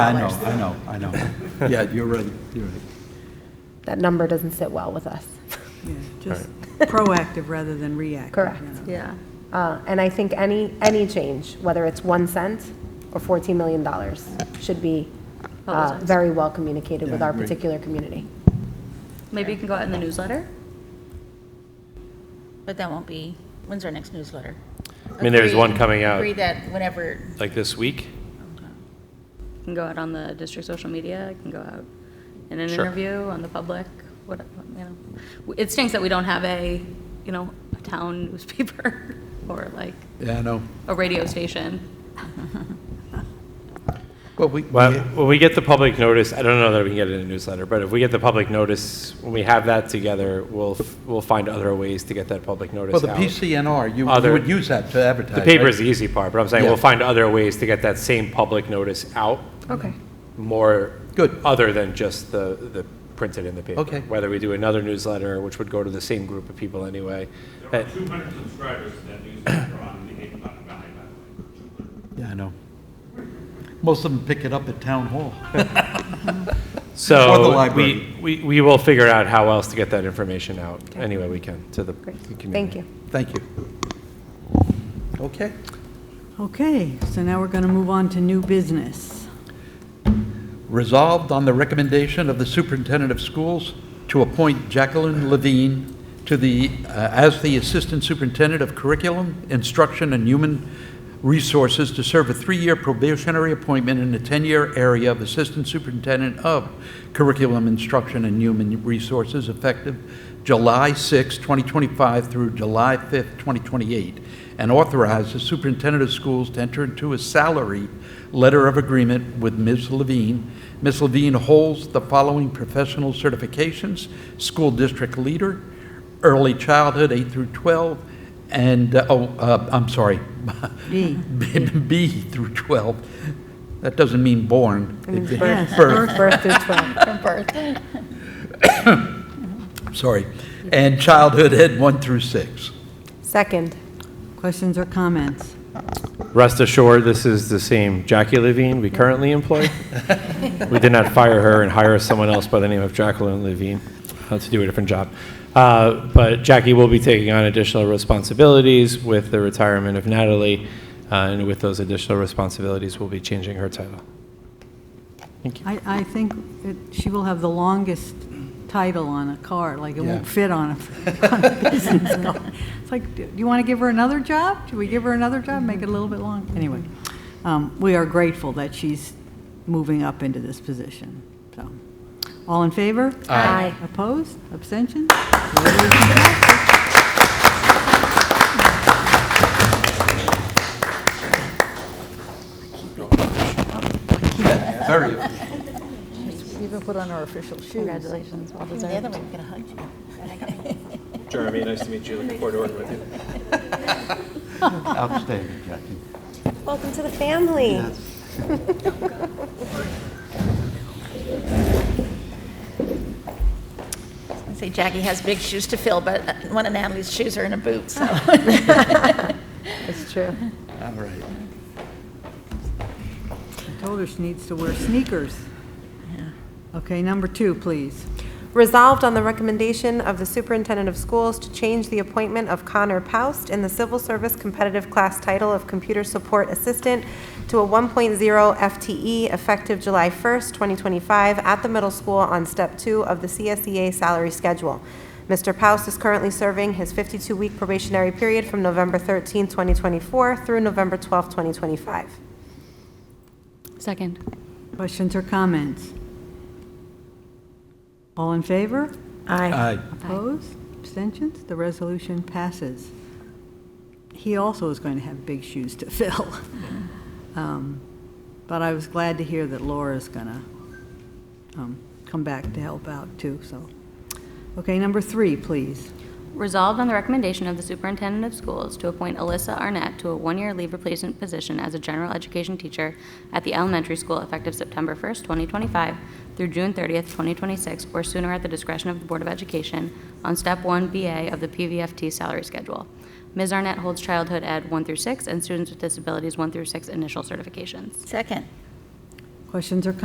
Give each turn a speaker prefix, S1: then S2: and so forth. S1: I know, I know, I know. Yeah, you're right, you're right.
S2: That number doesn't sit well with us.
S3: Yeah, just proactive rather than reactive.
S2: Correct.
S3: you know.
S4: Yeah.
S2: Uh, And I think any, any change, whether it's one cent or $14 million, should be uh, very well communicated with
S1: Yeah, I
S2: our
S1: agree.
S2: particular community.
S4: Maybe you can go out in the newsletter? But that won't be, when's our next newsletter?
S5: I mean, there's one coming out
S6: Agree that whenever,
S5: like this week.
S4: You Can go out on the district social media, I can go out in an
S5: Sure.
S4: interview, on the public, what, you know. It stinks that we don't have a, you know, a town newspaper or like
S1: Yeah, I know.
S4: a radio station.
S1: Well, we,
S5: Well,
S1: we-
S5: when we get the public notice, I don't know that we can get it in a newsletter, but if we get the public notice, when we have that together, we'll, f- we'll find other ways to get that public notice
S1: well, the
S5: out.
S1: PCNR, you you
S5: Other-
S1: would use that to advertise,
S5: The
S1: right?
S5: paper is the easy part, but I'm saying
S1: Yeah.
S5: we'll find other ways to get that same public notice out
S2: Okay.
S5: more.
S1: Good.
S5: Other than just the, the printed in the paper.
S1: Okay.
S5: Whether we do another newsletter, which would go to the same group of people anyway.
S7: There
S5: Uh,
S7: were 200 subscribers to that newspaper on the Hayden Button Valley, by the way.
S1: Yeah, I know. Most of them pick it up at town hall.
S5: So.
S1: Or the library.
S5: We, we, we will figure out how else to get that information out any way we can to the the
S2: Great.
S5: community.
S2: Thank
S1: Thank
S2: you.
S1: you. Okay.
S3: Okay, so now we're going to move on to new business.
S1: Resolved on the recommendation of the superintendent of schools to appoint Jacqueline Levine to the, uh, as the Assistant Superintendent of Curriculum, Instruction, and Human Resources to serve a three-year probationary appointment in the 10-year area of Assistant Superintendent of Curriculum, Instruction, and Human Resources effective July 6, 2025 through July 5, 2028, and authorize the superintendent of schools to enter into a salary letter of agreement with Ms. Levine. Ms. Levine holds the following professional certifications: school district leader, early childhood 8 through 12, and, uh, oh, uh, I'm sorry.
S3: B.
S1: B through 12. That doesn't mean born. It-
S3: birth.
S1: Birth.
S2: Birth through 12.
S6: from birth.
S1: sorry, and childhood ed one through six.
S2: Second,
S3: Questions or comments?
S5: Rest assured, this is the same Jackie Levine we currently employ. We did not fire her and hire someone else by the name of Jacqueline Levine uh, to do a different job. Uh, But Jackie will be taking on additional responsibilities with the retirement of Natalie, uh, and with those additional responsibilities, we'll be changing her title.
S3: I, I think that she will have the longest title on a car, like it won't
S1: Yeah.
S3: fit on a, on a business card. It's like, do you want to give her another job? Do we give her another job, make it a little bit long? Anyway, um, we are grateful that she's moving up into this position, so. All in favor?
S2: Aye.
S3: Opposed? Abstentions?
S1: Very.
S6: You can put on our official shoes.
S4: Congratulations, well
S6: The
S4: deserved.
S6: other one, gonna hug you.
S5: Jeremy, nice to meet you. Looking forward to working with you.
S1: Outstanding, Jackie.
S2: welcome to the family.
S6: I say Jackie has big shoes to fill, but one of Natalie's shoes are in a boot, so.
S2: It's true.
S1: All right.
S3: I told her she needs to wear sneakers. Okay, number two, please.
S2: Resolved on the recommendation of the superintendent of schools to change the appointment of Connor Paust in the civil service competitive class title of computer support assistant to a 1.0 FTE E effective July 1st, 2025, at the middle school on step two of the CSEA salary schedule. Mr. Paust is currently serving his 52-week probationary period from November 13, 2024 through November 12, 2025.
S4: Second.
S3: Questions or comments? All in favor?
S1: Aye.
S3: Opposed? Abstentions? The resolution passes. He also is going to have big shoes to fill. Um, But I was glad to hear that Laura's going to come back to help out, too, so. Okay, number three, please.
S4: Resolved on the recommendation of the superintendent of schools to appoint Alyssa Arnett to a one-year leave replacement position as a general education teacher at the elementary school effective September 1st, 2025 through June 30th, 2026, or sooner at the discretion of the Board of Education on Step 1 BA of the PVFT salary schedule. Ms. Arnett holds childhood ed 1 through 6 and students with disabilities 1 through 6 initial certifications.
S6: Second.
S3: Questions or